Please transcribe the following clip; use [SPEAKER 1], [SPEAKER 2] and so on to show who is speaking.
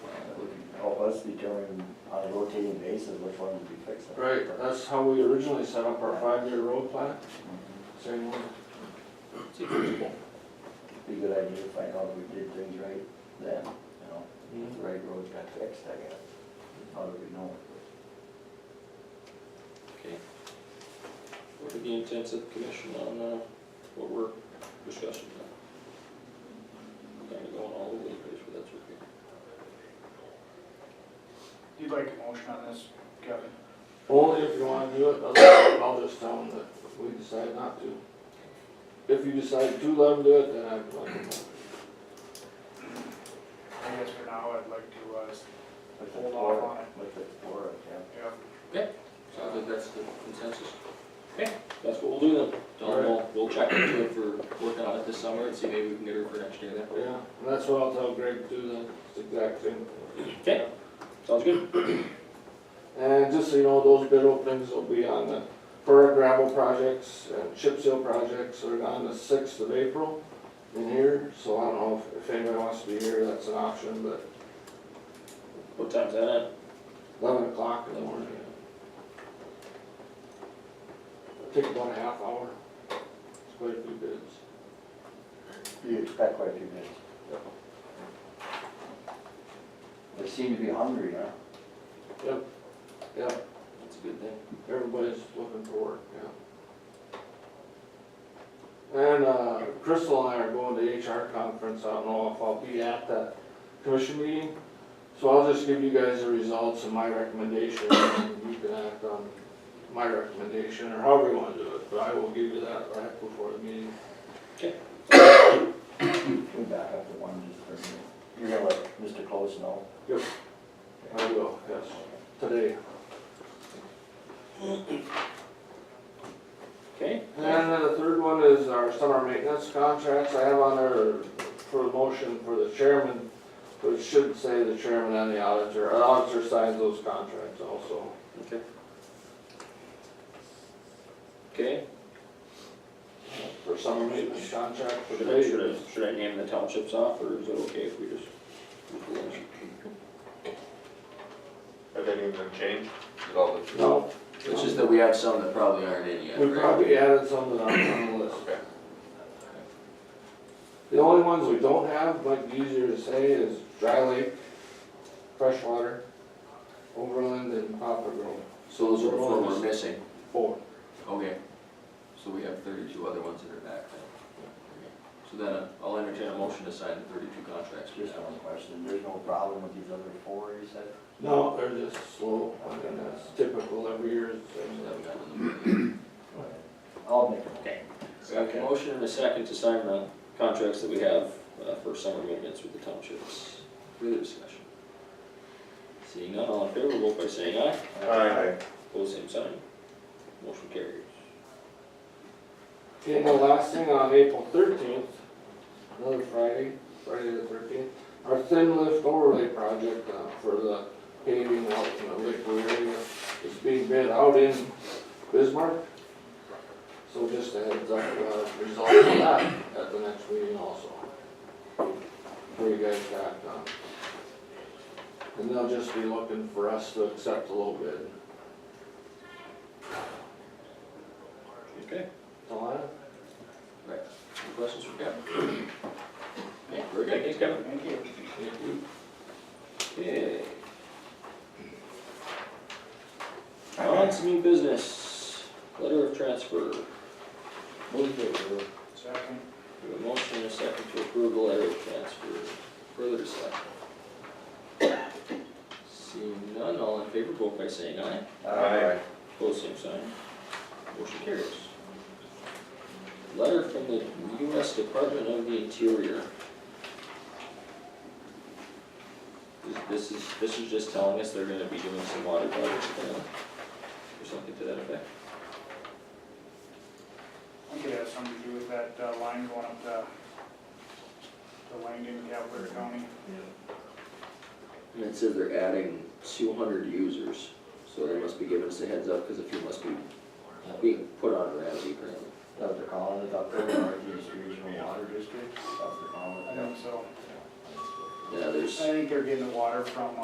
[SPEAKER 1] us determine on a rotating basis which ones we fix.
[SPEAKER 2] Right, that's how we originally set up our five-year road plan, same way.
[SPEAKER 1] Be a good idea to find out if we did things right then, you know, if the right roads got fixed, I guess. How do we know?
[SPEAKER 3] Okay. What are the intents of the commission on, uh, what we're discussing now? Kind of going all over the place, but that's okay.
[SPEAKER 4] You'd like a motion on this, Kevin?
[SPEAKER 2] Only if you wanna do it, otherwise I'll just tell them that we decide not to. If you decide to let them do it, then I'd like them to.
[SPEAKER 4] I guess for now, I'd like to, uh, s-
[SPEAKER 1] With the
[SPEAKER 4] Hold
[SPEAKER 1] floor,
[SPEAKER 4] off on it.
[SPEAKER 1] with the floor, yeah.
[SPEAKER 4] yeah,
[SPEAKER 3] So I think that's the consensus. Okay, that's what we'll do then. Tell them we'll, we'll check into it for working on it this summer and see maybe we can get her for next year then.
[SPEAKER 2] Yeah, and that's what I'll tell Greg to do then, it's the exact same.
[SPEAKER 3] Okay, sounds good.
[SPEAKER 2] And just so you know, those bid openings will be on the, for our gravel projects and chip seal projects, are on the sixth of April in here, so I don't know if, if anybody wants to be here, that's an option, but
[SPEAKER 3] What time's that at?
[SPEAKER 2] eleven o'clock in the morning. Take about a half hour, it's quite a few bids.
[SPEAKER 1] You expect quite a few minutes. They seem to be hungry, huh?
[SPEAKER 2] Yep, yep,
[SPEAKER 3] That's a good thing.
[SPEAKER 2] everybody's looking for work, yeah. And, uh, Crystal and I are going to HR conference, I don't know if I'll be at that commission meeting. So I'll just give you guys the results and my recommendation, and you can act on my recommendation, or however you wanna do it, but I will give you that right before the meeting.
[SPEAKER 1] We back up to one just for a minute. You're gonna let Mr. Close know?
[SPEAKER 2] I will, yes, today.
[SPEAKER 3] Okay,
[SPEAKER 2] And then the third one is our summer maintenance contracts. I have on there for the motion for the chairman, but it should say the chairman and the auditor. Our auditor signs those contracts also.
[SPEAKER 3] okay. Okay,
[SPEAKER 2] For summer maintenance contract for the
[SPEAKER 3] should I, should
[SPEAKER 2] day.
[SPEAKER 3] I, should I name the townships off or is it okay if we just?
[SPEAKER 5] Have any of them changed at all?
[SPEAKER 2] No,
[SPEAKER 6] It's just that we have some that probably aren't in yet,
[SPEAKER 2] we
[SPEAKER 6] right?
[SPEAKER 2] probably added some that aren't on the list.
[SPEAKER 5] Okay.
[SPEAKER 2] The only ones we don't have, might be easier to say, is dry lake, freshwater, overland and poplar grove.
[SPEAKER 6] So those are the four we're missing,
[SPEAKER 2] Four.
[SPEAKER 6] okay. So we have thirty-two other ones that are back then. So then uh, I'll entertain a motion to sign the thirty-two contracts.
[SPEAKER 1] Just one question. There's no problem with these other four, you said?
[SPEAKER 2] No, they're just slow, I mean, that's typical every year. it's the same.
[SPEAKER 1] I'll make a
[SPEAKER 3] Okay. Got a motion and a second to sign the contracts that we have uh, for summer maintenance with the townships. Further discussion? Seeing none, all in favor, vote by saying aye.
[SPEAKER 5] Aye.
[SPEAKER 3] Pose same sign. Motion carries.
[SPEAKER 2] Okay, and the last thing on April thirteenth, another Friday, Friday the thirteenth, our thin lift overlay project uh, for the paving out in the liquid area is being bid out in Bismarck. So just a heads up, uh, result of that at the next meeting also. For you guys to act on. And they'll just be looking for us to accept a little bid.
[SPEAKER 3] Okay,
[SPEAKER 2] That's all I have.
[SPEAKER 3] any questions for Kevin? Yeah, very good, thanks Kevin.
[SPEAKER 4] thank you.
[SPEAKER 3] Thank you. Okay. On to new business, letter of transfer.
[SPEAKER 1] move to approve.
[SPEAKER 4] Second,
[SPEAKER 3] We have a motion and a second to approve the letter of transfer. Further discussion? Seeing none, all in favor, vote by saying aye.
[SPEAKER 1] Uh,
[SPEAKER 5] Aye.
[SPEAKER 3] Opposed, same sign. Motion carries. Letter from the U.S. Department of the Interior. This- This is, this is just telling us they're gonna be doing some water projects, uh, or something to that effect.
[SPEAKER 4] I think it has something to do with that uh, line going up to, to Langdon, Cavalier County.
[SPEAKER 6] And it says they're adding two hundred users, so they must be giving us a heads up, because a few must be being put on Ramsey currently.
[SPEAKER 1] That was the column, that up there, Northeast Regional Water District, that was the column.
[SPEAKER 4] I think so.
[SPEAKER 6] Yeah,
[SPEAKER 4] I
[SPEAKER 6] there's.
[SPEAKER 4] think they're getting the water from